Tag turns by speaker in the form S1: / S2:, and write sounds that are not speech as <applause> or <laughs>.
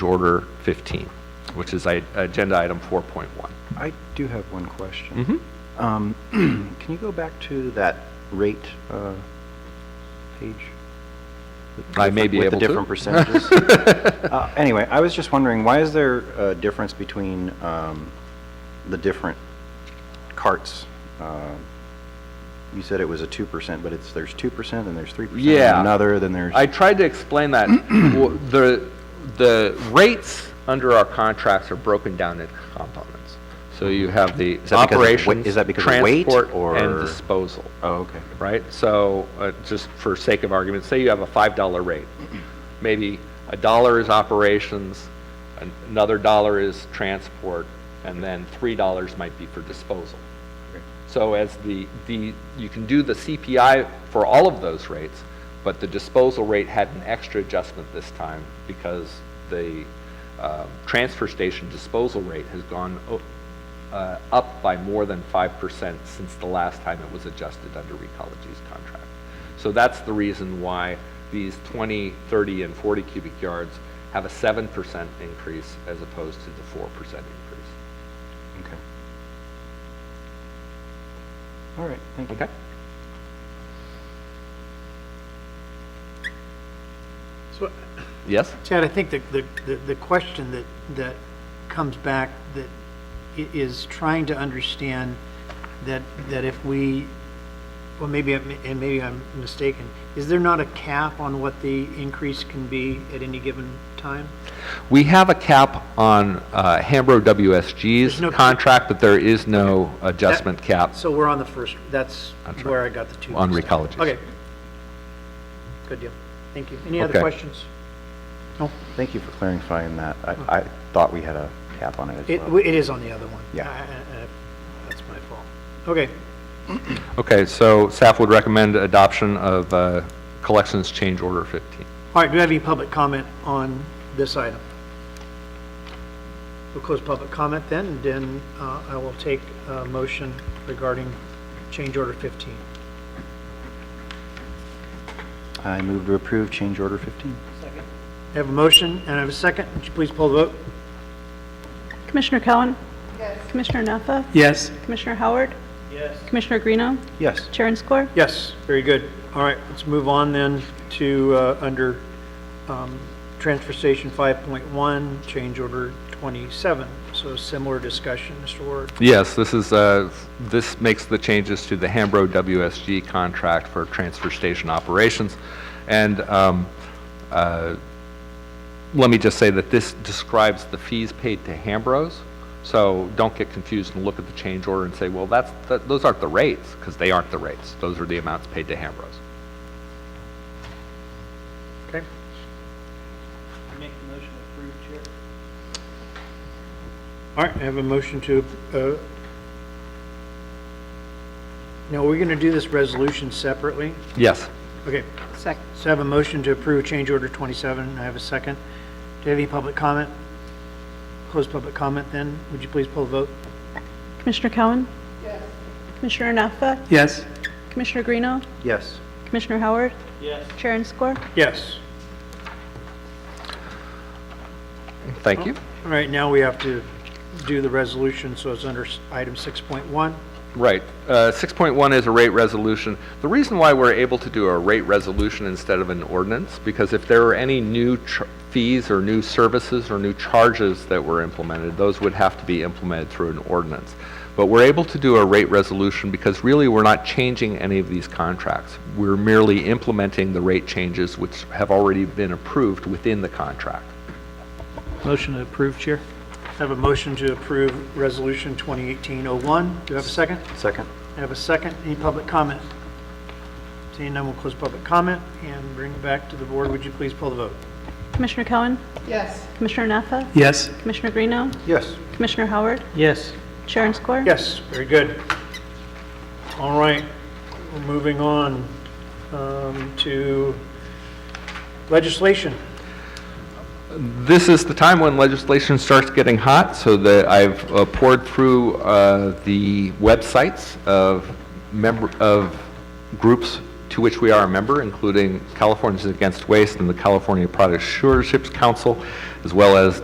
S1: order 15, which is i- agenda item 4.1.
S2: I do have one question.
S1: Mhm.
S2: Um, <clears throat> Can you go back to that rate uh, page?
S1: I may be
S2: With
S1: able to.
S2: the
S1: <laughs>
S2: different percentages? Uh, Anyway, I was just wondering, why is there a difference between um, the different carts? Um, You said it was a 2%, but it's, there's 2%, and there's 3%. and
S1: Yeah.
S2: Another, then there's...
S1: I tried to explain
S2: <clears throat>
S1: that. Well, The, the rates under our contracts are broken down into components. So you have the
S2: Is that because of weight-
S1: operations,
S2: is that because of weight,
S1: transport, and
S2: or-
S1: disposal,
S2: Oh, okay.
S1: right? So, uh, just for sake of argument, say you have a $5 rate. Maybe a dollar is operations, an- another dollar is transport, and then $3 might be for disposal. So as the, the, you can do the CPI for all of those rates, but the disposal rate had an extra adjustment this time because the uh, transfer station disposal rate has gone o- uh, up by more than 5% since the last time it was adjusted under Recology's contract. So that's the reason why these 20, 30, and 40 cubic yards have a 7% increase as opposed to the 4% increase.
S2: Okay. All right, thank you.
S1: Okay?
S3: So,
S1: Yes?
S3: Chad, I think the, the- the, the question that, that comes back, that i- is trying to understand that, that if we, well, maybe, I'm- and maybe I'm mistaken, is there not a cap on what the increase can be at any given time?
S1: We have a cap on uh, Hambro
S3: There's no-
S1: WSG's contract, but there is no adjustment cap.
S3: So we're on the first, that's
S1: That's
S3: where I
S1: right.
S3: got the two.
S1: On
S3: mixed up.
S1: Recology's.
S3: Okay. Good deal. Thank you. Any other
S1: Okay.
S3: questions? No?
S2: Thank you for clarifying that. I, I thought we had a cap on it as
S3: It,
S2: well.
S3: it is on the other one.
S2: Yeah.
S3: I- I- I- That's my fault. Okay.
S1: Okay, so staff would recommend adoption of uh, Collections Change Order 15.
S3: All right, do we have any public comment on this item? We'll close public comment then, and then uh, I will take a motion regarding change order 15.
S2: I move to approve change order 15.
S3: I have a motion and I have a second. Would you please pull the vote?
S4: Commissioner Cowan? Yes. Commissioner Naffa?
S3: Yes.
S4: Commissioner Howard?
S3: Yes.
S4: Commissioner Greeno?
S2: Yes.
S4: Chair and score?
S3: Yes, very good. All right, let's move on then to, uh, under um, Transfer Station 5.1, change order 27. So similar discussion, Mr. Ward.
S1: Yes, this is, uh, this makes the changes to the Hambro WSG contract for transfer station operations. And um, uh, let me just say that this describes the fees paid to Hambros, so don't get confused and look at the change order and say, well, that's, that- those aren't the rates, because they aren't the rates. Those are the amounts paid to Hambros.
S3: Okay? All right, I have a motion to, uh, now, we're going to do this resolution separately?
S1: Yes.
S3: Okay,
S4: Second.
S3: so I have a motion to approve change order 27, I have a second. Do you have any public comment? Close public comment then, would you please pull the vote?
S4: Commissioner Cowan? Yes. Commissioner Naffa?
S3: Yes.
S4: Commissioner Greeno?
S2: Yes.
S4: Commissioner Howard? Yes. Chair and score?
S3: Yes.
S1: Thank you.
S3: All right, now we have to do the resolution, so it's under s- item 6.1.
S1: Right. Uh, 6.1 is a rate resolution. The reason why we're able to do a rate resolution instead of an ordinance, because if there were any new ch- fees or new services or new charges that were implemented, those would have to be implemented through an ordinance. But we're able to do a rate resolution because really we're not changing any of these contracts. We're merely implementing the rate changes which have already been approved within the contract.
S3: Motion to approve, Chair. I have a motion to approve Resolution 2018-01. Do you have a second?
S2: Second.
S3: I have a second. Any public comment? Seeing none, we'll close public comment and bring it back to the board. Would you please pull the vote?
S4: Commissioner Cowan? Yes. Commissioner Naffa?
S3: Yes.
S4: Commissioner Greeno?
S2: Yes.
S4: Commissioner Howard?
S3: Yes.
S4: Chair and score?
S3: Yes, very good. All right, we're moving on um, to legislation.
S1: This is the time when legislation starts getting hot, so that I've uh, poured through uh, the websites of member, of groups to which we are a member, including Californians Against Waste and the California Product Stewardship Council, as well as